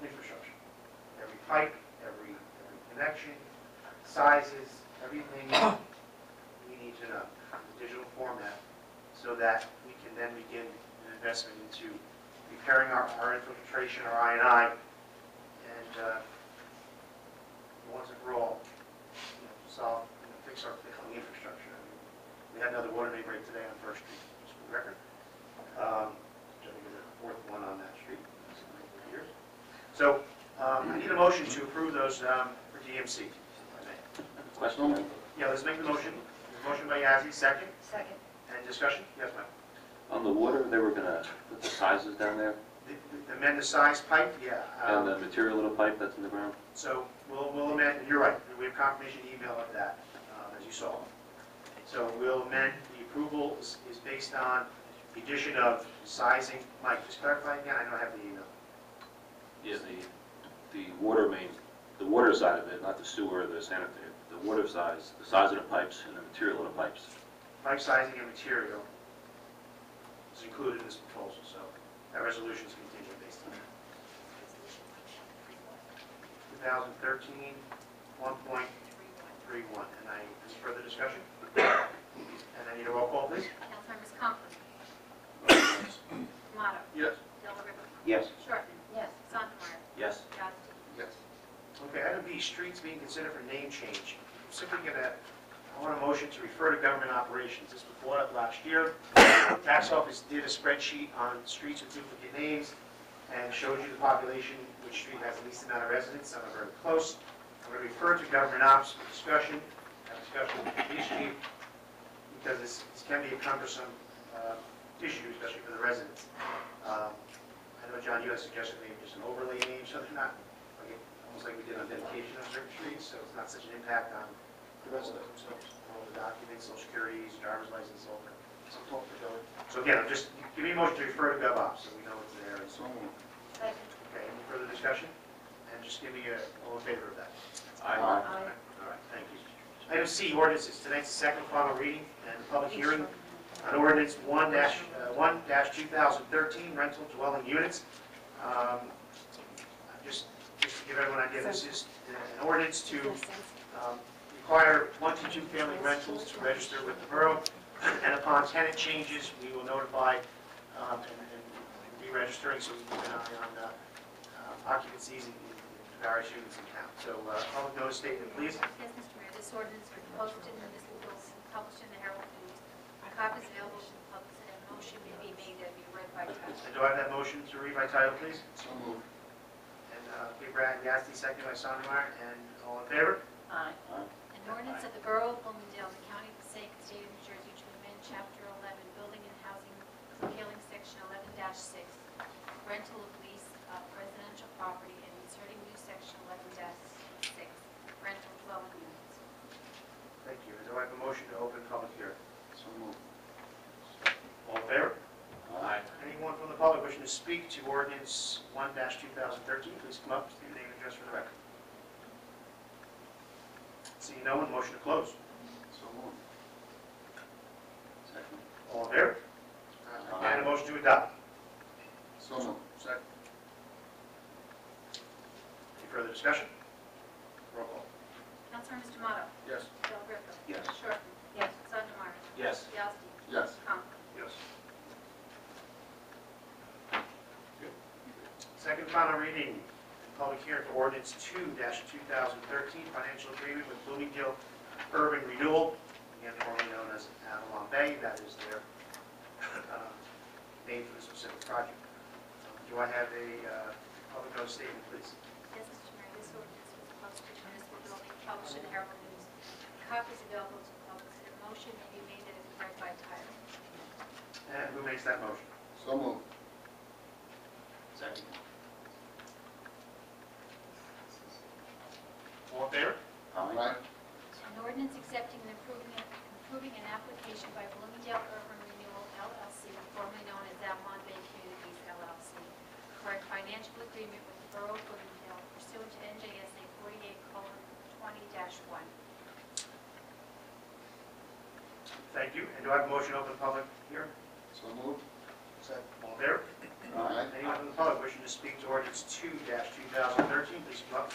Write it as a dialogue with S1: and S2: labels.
S1: pipe, every, every connection, sizes, everything we need to know in digital format so that we can then begin an investment into repairing our, our infiltration, our I and I, and, uh, once and for all, you know, solve, you know, fix our failing infrastructure. I mean, We had another water main break today on First Street, just for the record. Um, which I think is the fourth one on that street in several years. So, um, I need a motion to approve those, um, for DMC. if I may.
S2: Question?
S1: Yeah, let's make the motion. Motion by Yazdi, second,
S3: Second.
S1: and discussion? Yes, ma'am.
S2: On the water, they were gonna put the sizes down there
S1: The- The amend the size pipe, yeah.
S2: and
S1: um,
S2: the material of the pipe that's in the ground?
S1: So we'll, we'll amend, and you're right, we have confirmation email of that, uh, as you saw. So we'll amend, the approval is is based on the addition of sizing. Mike, just clarify again, I don't have the email.
S2: Yeah, the, the water main, the water side of it, not the sewer or the sanitary, the water size, the size of the pipes and the material of the pipes.
S1: Pipe sizing and material is included in this proposal, so that resolution is contingent based on that. 2013, 1.31, and I, any further discussion? And I need a roll call, please.
S4: Councilmembers Conklin, Tomato,
S1: Yes.
S4: Del River,
S2: Yes.
S4: Shortman,
S3: Yes.
S4: Sondemire,
S2: Yes.
S4: Yasti.
S1: Yes. Okay, item B, streets being considered for name change. I'm Simply gonna, I want a motion to refer to government operations. This was brought up last year. Tax office did a spreadsheet on streets with duplicate names and showed you the population, which street has the least amount of residents, some are very close. I'm gonna refer to government ops for discussion, have discussion with the police chief, because this this can be a cumbersome uh, issue, especially for the residents. Um, I know, John, you had suggested maybe just an overlay name, so they're not like, almost like we did on dedication on certain streets, so it's not such an impact on the rest of them, so all the documents, social securities, driver's license, all that. So talk to Joe. So again, I'm just, give me a motion to refer to GovOps, so we know it's there, and so,
S3: Second.
S1: okay, any further discussion? And just give me a, all in favor of that.
S2: Aye.
S1: All right, thank you. Item C, ordinances, tonight's the second final reading and the public hearing on ordinance one dash, uh, one dash two thousand thirteen rental dwelling units. Um, Just, just to give everyone an idea, this is an ordinance to um, require one to two family rentals to register with the borough, and upon tenant changes, we will notify um, and and re-registering, so we keep an eye on uh, uh, occupancies in in various units in town. So, uh, public notice statement, please.
S4: Yes, Mr. Mayor, this ordinance was posted in the municipal bills and published in the Herald News. A copy is available to the public, and a motion may be made that be read by title.
S1: And do I have that motion to read by title, please? So moved. And uh, Big Brad Yasti, second by Sondemire, and all in favor?
S3: Aye.
S4: An ordinance of the Borough of Bloomingdale, the County of Passaic, State of New Jersey, to amend Chapter 11, Building and Housing, curtailing Section 11-6, rental of lease of residential property, and inserting new Section 11-6, rental dwelling units.
S1: Thank you. And do I have a motion to open public hearing? So moved. All in favor?
S2: Aye.
S1: Anyone from the public wishing to speak to ordinance one two thousand thirteen, please come up, state your name and address for the record. Seeing no one, motion to close. So moved.
S2: Second.
S1: All in favor?
S2: Aye.
S1: And a motion to adopt.
S2: So moved.
S1: Second. Any further discussion? Roll call.
S4: Councilmembers Tomato,
S1: Yes.
S4: Del Rippe,
S2: Yes.
S4: Shortman,
S3: Yes.
S4: Sondemire,
S2: Yes.
S4: Yasti,
S2: Yes.
S4: Conklin.
S1: Yes. Second final reading, public hearing for ordinance two two thousand thirteen, financial agreement with Bloomingdale Urban Renewal, again formerly known as Avalon Bay, that is their uh, name for the specific project. Um, Do I have a uh, public notice statement, please?
S4: Yes, Mr. Mayor, this ordinance was posted in the municipal building, published in the Herald News. Copies available to the public, and a motion may be made that it be read by title.
S1: And who makes that motion?
S2: So moved.
S1: Second. All in favor?
S2: Aye.
S4: An ordinance accepting and approving, approving an application by Bloomingdale Urban Renewal LLC, formerly known as Avalon Bay Communities LLC, for a financial agreement with the Borough of Bloomingdale pursuant to NJSA 48:20-1.
S1: Thank you. And do I have a motion to open public hearing?
S2: So moved.
S1: Second. All in favor?
S2: Aye.
S1: Anyone from the public wishing to speak to ordinance two two thousand thirteen, please come up